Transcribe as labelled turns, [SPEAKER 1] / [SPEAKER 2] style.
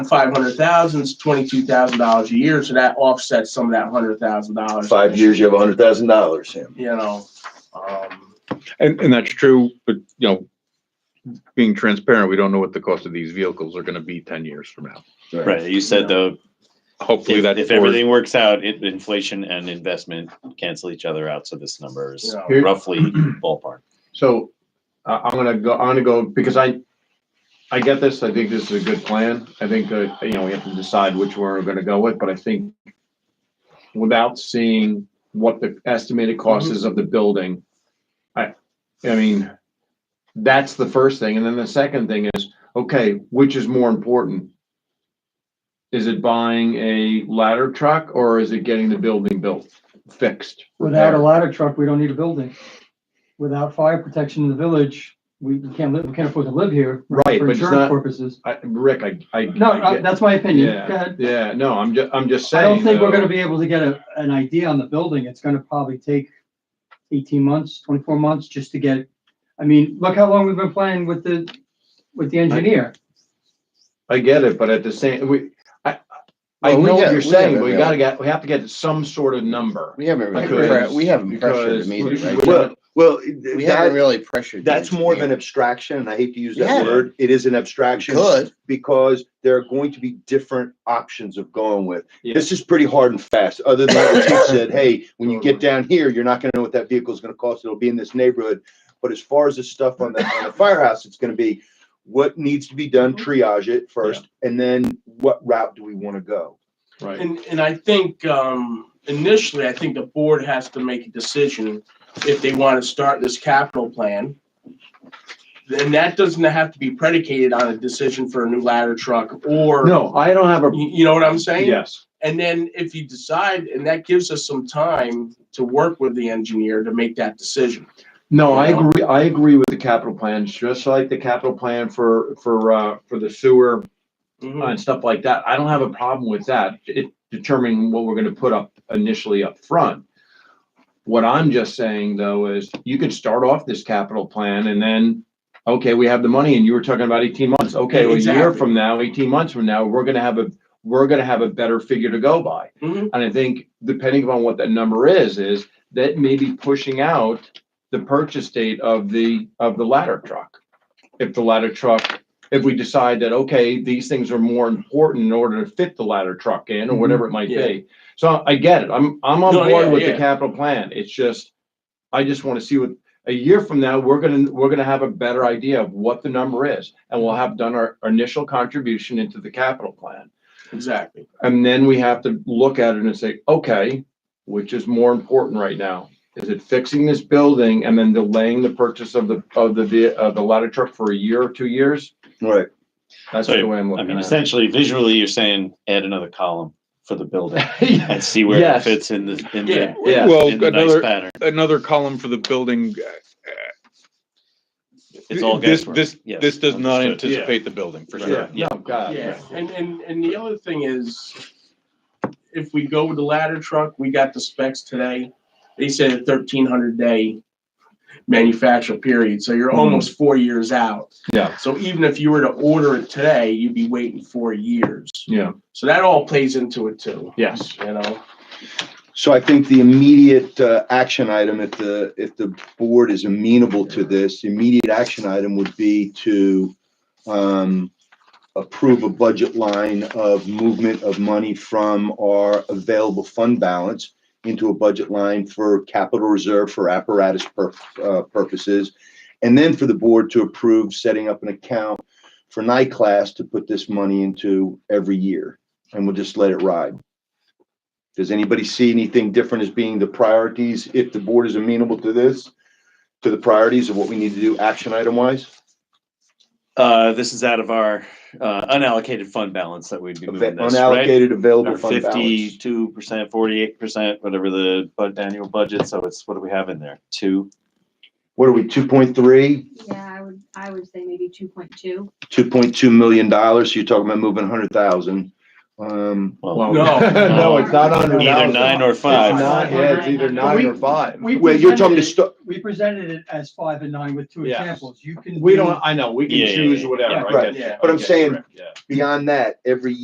[SPEAKER 1] five hundred thousand, it's twenty-two thousand dollars a year, so that offsets some of that hundred thousand dollars.
[SPEAKER 2] Five years, you have a hundred thousand dollars, Sam.
[SPEAKER 1] You know, um,
[SPEAKER 3] And, and that's true, but you know, being transparent, we don't know what the cost of these vehicles are gonna be ten years from now.
[SPEAKER 4] Right, you said though,
[SPEAKER 3] Hopefully
[SPEAKER 4] if,
[SPEAKER 3] that.
[SPEAKER 4] if
[SPEAKER 3] board-
[SPEAKER 4] everything works out, it, inflation and investment cancel each other out, so this number
[SPEAKER 1] you
[SPEAKER 4] is
[SPEAKER 1] know.
[SPEAKER 5] Here-
[SPEAKER 4] roughly ballpark.
[SPEAKER 5] So I I'm gonna go, I'm gonna go, because I, I get this. I think this is a good plan. I think that, you know, we have to decide which one we're gonna go with, but I think without seeing what the estimated cost
[SPEAKER 6] Mm-hmm.
[SPEAKER 5] is of the building, I, I mean, that's the first thing. And then the second thing is, okay, which is more important? Is it buying a ladder truck or is it getting the building built, fixed?
[SPEAKER 6] Without a ladder truck, we don't need a building. Without fire protection in the village, we we can't live, we can't afford to live here.
[SPEAKER 5] Right,
[SPEAKER 6] For
[SPEAKER 5] but it's
[SPEAKER 6] insurance
[SPEAKER 5] not,
[SPEAKER 6] purposes.
[SPEAKER 5] I, Rick, I, I.
[SPEAKER 6] No,
[SPEAKER 5] I
[SPEAKER 6] uh,
[SPEAKER 5] get-
[SPEAKER 6] that's my opinion.
[SPEAKER 5] Yeah.
[SPEAKER 6] Go ahead.
[SPEAKER 5] Yeah, no, I'm ju- I'm just
[SPEAKER 6] I
[SPEAKER 5] saying.
[SPEAKER 6] don't think we're
[SPEAKER 5] though,
[SPEAKER 6] gonna be able to get a, an idea on the building. It's gonna probably take eighteen months, twenty-four months just to get. I mean, look how long we've been playing with the, with the engineer.
[SPEAKER 5] I get it, but at the same, we, I, I
[SPEAKER 2] Well, we
[SPEAKER 5] know
[SPEAKER 2] got-
[SPEAKER 5] what
[SPEAKER 2] we
[SPEAKER 5] you're saying,
[SPEAKER 2] have
[SPEAKER 5] but we
[SPEAKER 2] it,
[SPEAKER 5] gotta get, we have to get some sort of number.
[SPEAKER 7] We haven't really,
[SPEAKER 5] Because-
[SPEAKER 7] pre- we haven't pressured
[SPEAKER 5] Because
[SPEAKER 7] the meeting, right?
[SPEAKER 2] Well, well,
[SPEAKER 7] We haven't
[SPEAKER 2] that,
[SPEAKER 7] really pressured. the
[SPEAKER 2] that's more of an
[SPEAKER 7] engineer.
[SPEAKER 2] abstraction, and I hate to use
[SPEAKER 7] Yeah.
[SPEAKER 2] that word. It is an abstraction
[SPEAKER 7] Good,
[SPEAKER 2] because there are going to be different options of going with.
[SPEAKER 5] Yeah.
[SPEAKER 2] This is pretty hard and fast, other than what the chief said, hey, when you get down here, you're not gonna know what that vehicle is gonna cost. It'll be in this neighborhood. But as far as the stuff on the, on the firehouse, it's gonna be what needs to be done,
[SPEAKER 7] Mm-hmm.
[SPEAKER 2] triage it first, and then what route do we wanna go?
[SPEAKER 5] Right.
[SPEAKER 1] And, and I think, um, initially, I think the board has to make a decision if they want to start this capital plan. Then that doesn't have to be predicated on a decision for a new ladder truck or,
[SPEAKER 5] No, I don't have a,
[SPEAKER 1] you, you know what I'm saying?
[SPEAKER 5] yes,
[SPEAKER 1] And then if you decide, and that gives us some time to work with the engineer to make that decision.
[SPEAKER 5] no, I agree, I agree with the capital plan, just like the capital plan for, for, uh, for the sewer
[SPEAKER 1] Mhm.
[SPEAKER 5] and stuff like that. I don't have a problem with that. It determining what we're gonna put up initially up front. What I'm just saying though is you could start off this capital plan and then, okay, we have the money and you were talking about eighteen months. Okay, well, a year
[SPEAKER 1] Exactly.
[SPEAKER 5] from now, eighteen months from now, we're gonna have a, we're gonna have a better figure to go by.
[SPEAKER 1] Mhm.
[SPEAKER 5] And I think depending upon what that number is, is that may be pushing out the purchase date of the, of the ladder truck. If the ladder truck, if we decide that, okay, these things are more important in order to fit the ladder truck in or whatever it might
[SPEAKER 1] Mm-hmm. Yeah.
[SPEAKER 5] be. So I get it. I'm, I'm on
[SPEAKER 1] No,
[SPEAKER 5] board
[SPEAKER 1] yeah,
[SPEAKER 5] with the
[SPEAKER 1] yeah.
[SPEAKER 5] capital plan. It's just, I just want to see what, a year from now, we're gonna, we're gonna have a better idea of what the number is. And we'll have done our our initial contribution into the capital plan.
[SPEAKER 1] Exactly.
[SPEAKER 5] And then we have to look at it and say, okay, which is more important right now? Is it fixing this building and then delaying the purchase of the, of the, ve- of the ladder truck for a year or two years?
[SPEAKER 2] Right.
[SPEAKER 5] That's
[SPEAKER 4] So,
[SPEAKER 5] the way I'm
[SPEAKER 4] I
[SPEAKER 5] looking
[SPEAKER 4] mean,
[SPEAKER 5] at it.
[SPEAKER 4] essentially, visually, you're saying add another column for the building
[SPEAKER 5] Yeah,
[SPEAKER 4] and see where it
[SPEAKER 5] Yes.
[SPEAKER 4] fits in the, in the,
[SPEAKER 5] yeah.
[SPEAKER 3] Well,
[SPEAKER 4] in the nice
[SPEAKER 3] another,
[SPEAKER 4] pattern.
[SPEAKER 3] another column for the building. uh,
[SPEAKER 4] It's all
[SPEAKER 3] This,
[SPEAKER 4] guesswork.
[SPEAKER 3] this,
[SPEAKER 4] Yes,
[SPEAKER 3] this does not
[SPEAKER 4] understood.
[SPEAKER 3] anticipate the building, for sure.
[SPEAKER 5] Yeah, no, Oh, God.
[SPEAKER 1] Yeah, and, and, and the other thing is, if we go with the ladder truck, we got the specs today. They said a thirteen hundred day manufacture period, so you're almost four years out.
[SPEAKER 5] Hmm. Yeah.
[SPEAKER 1] So even if you were to order it today, you'd be waiting four years.
[SPEAKER 5] Yeah,
[SPEAKER 1] So that all plays into it too,
[SPEAKER 5] yes.
[SPEAKER 1] you know?
[SPEAKER 2] So I think the immediate uh, action item, if the, if the board is amenable to this, the immediate action item would be to um, approve a budget line of movement of money from our available fund balance into a budget line for capital reserve for apparatus pur- uh, purposes. And then for the board to approve setting up an account for NICLAS to put this money into every year. And we'll just let it ride. Does anybody see anything different as being the priorities, if the board is amenable to this, to the priorities of what we need to do action item wise?
[SPEAKER 4] Uh, this is out of our, uh, unallocated fund balance that we'd be moving this, right?
[SPEAKER 2] Unallocated available
[SPEAKER 4] Our
[SPEAKER 2] fund balance.
[SPEAKER 4] fifty-two percent, forty-eight percent, whatever the bud, annual budget, so it's, what do we have in there? Two?
[SPEAKER 2] What are we, two point three,
[SPEAKER 8] Yeah, I would, I would say maybe two point two.
[SPEAKER 2] two point two million dollars? So You're talking about moving a hundred thousand. Um,
[SPEAKER 5] Well,
[SPEAKER 1] No.
[SPEAKER 5] No, it's not under.
[SPEAKER 4] Either nine or five.
[SPEAKER 5] It's not, yeah, it's either nine or five.
[SPEAKER 6] We
[SPEAKER 2] well, you're talking to,
[SPEAKER 6] presented, it-
[SPEAKER 2] stu-
[SPEAKER 6] we presented it as five and nine with two
[SPEAKER 5] Yes.
[SPEAKER 6] examples. You can.
[SPEAKER 5] We
[SPEAKER 6] do-
[SPEAKER 5] don't, I know, we
[SPEAKER 4] Yeah,
[SPEAKER 5] can
[SPEAKER 4] yeah,
[SPEAKER 5] choose
[SPEAKER 4] yeah.
[SPEAKER 5] whatever, I
[SPEAKER 2] Right.
[SPEAKER 5] get you.
[SPEAKER 1] Yeah.
[SPEAKER 2] But I'm
[SPEAKER 5] Okay,
[SPEAKER 2] saying-
[SPEAKER 5] correct, yeah.
[SPEAKER 2] beyond that, every